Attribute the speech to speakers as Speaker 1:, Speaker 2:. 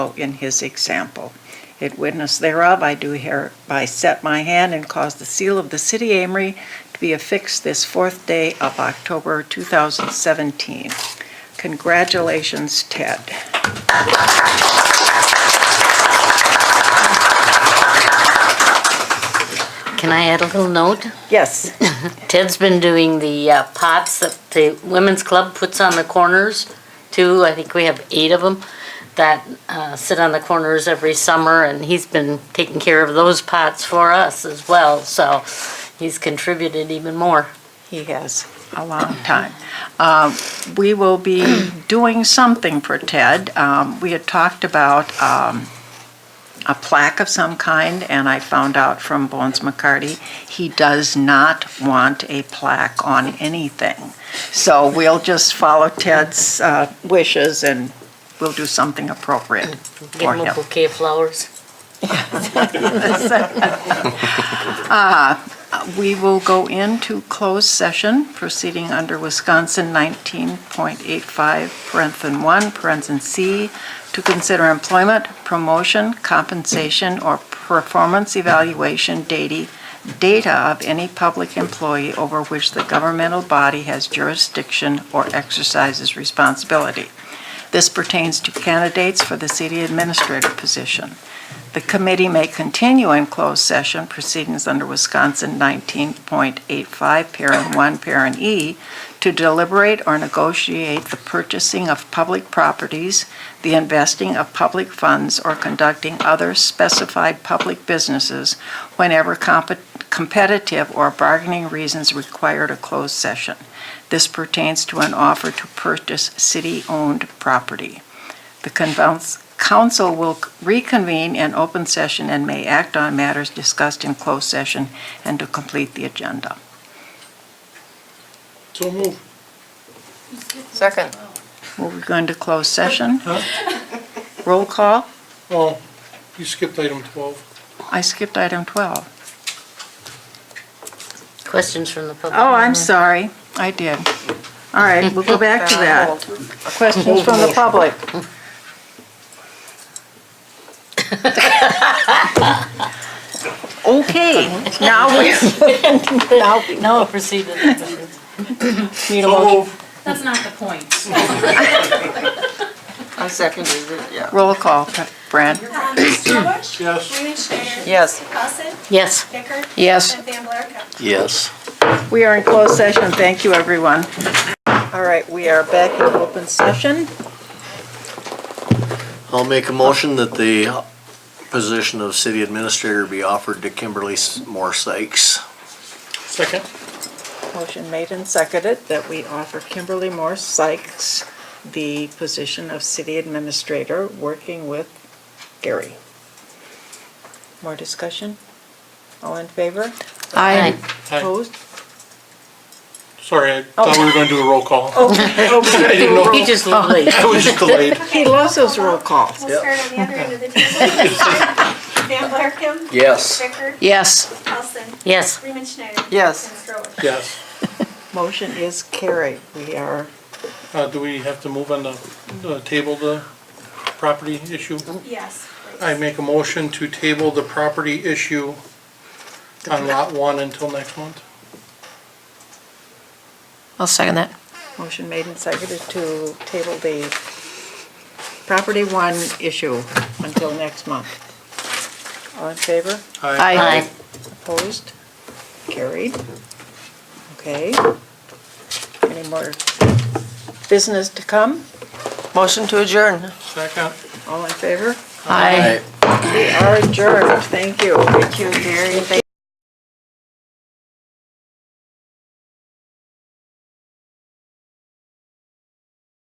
Speaker 1: in his example. In witness thereof, I do hereby set my hand and cause the seal of the city Amory to be affixed this fourth day of October 2017. Congratulations, Ted.
Speaker 2: Can I add a little note?
Speaker 1: Yes.
Speaker 2: Ted's been doing the uh, pots that the women's club puts on the corners, too. I think we have eight of them that uh, sit on the corners every summer, and he's been taking care of those pots for us as well. So he's contributed even more.
Speaker 1: He has a long time. Um, We will be doing something for Ted. Um, We had talked about um, a plaque of some kind, and I found out from Bones McCarty, he does not want a plaque on anything. So we'll just follow Ted's uh, wishes, and we'll do something appropriate
Speaker 2: Give
Speaker 1: for
Speaker 2: him a
Speaker 1: him.
Speaker 2: bouquet of flowers.
Speaker 1: uh, We will go into closed session proceeding under Wisconsin 19.85, parenthin 1, parenthin C, to consider employment, promotion, compensation, or performance evaluation data, data of any public employee over which the governmental body has jurisdiction or exercises responsibility. This pertains to candidates for the city administrator position. The committee may continue in closed session proceedings under Wisconsin 19.85, parent 1, parent E, to deliberate or negotiate the purchasing of public properties, the investing of public funds, or conducting other specified public businesses whenever compe- competitive or bargaining reasons require a closed session. This pertains to an offer to purchase city-owned property. The convons- council will reconvene in open session and may act on matters discussed in closed session and to complete the agenda.
Speaker 3: So move.
Speaker 4: Second.
Speaker 1: We're going to close session. Roll call.
Speaker 3: Oh, you skipped item 12.
Speaker 1: I skipped item 12.
Speaker 2: Questions from the public?
Speaker 1: Oh, I'm sorry. I did. All right, we'll go back to that. Questions from the public? Okay, now we, now,
Speaker 2: Oh, No, proceed. to the questions.
Speaker 1: need a motion.
Speaker 5: That's not the point.
Speaker 4: I seconded it, yeah.
Speaker 1: Roll call, Brad.
Speaker 6: Stroubush?
Speaker 3: Yes.
Speaker 6: Raymond Schneider?
Speaker 4: Yes.
Speaker 6: Cossett?
Speaker 2: Yes.
Speaker 6: Bicker?
Speaker 1: Yes.
Speaker 6: And Van Blarkum?
Speaker 7: Yes.
Speaker 1: We are in closed session. Thank you, everyone. All right, we are back in open session.
Speaker 7: I'll make a motion that the position of city administrator be offered to Kimberly Moore Sykes.
Speaker 3: Second.
Speaker 1: Motion made and seconded that we offer Kimberly Moore Sykes the position of city administrator, working with Gary. More discussion? All in favor?
Speaker 2: Aye.
Speaker 3: Aye.
Speaker 1: Opposed?
Speaker 3: Sorry, I thought we were going to do a roll call. I Oh. didn't know.
Speaker 2: He just looked late.
Speaker 3: I was just delayed.
Speaker 1: He loves those roll calls.
Speaker 6: We'll start on the other end of the table. Van Blarkum?
Speaker 7: Yes.
Speaker 6: Bicker?
Speaker 1: Yes.
Speaker 6: Cossett?
Speaker 2: Yes.
Speaker 6: Raymond Schneider?
Speaker 4: Yes.
Speaker 6: And Stroubush?
Speaker 3: Yes.
Speaker 1: Motion is carried. We are,
Speaker 3: Uh, do we have to move on the, the table, the property issue?
Speaker 6: Yes. please.
Speaker 3: I make a motion to table the property issue on lot one until next month.
Speaker 8: I'll second that.
Speaker 1: motion made and seconded to table the property one issue until next month. All in favor?
Speaker 3: Aye.
Speaker 2: Aye.
Speaker 1: Opposed? Carried. Okay. Any more business to come?
Speaker 4: Motion to adjourn.
Speaker 3: Second.
Speaker 1: All in favor?
Speaker 8: Aye.
Speaker 1: We are adjourned. Thank you.
Speaker 4: Thank you, Gary. Thank you.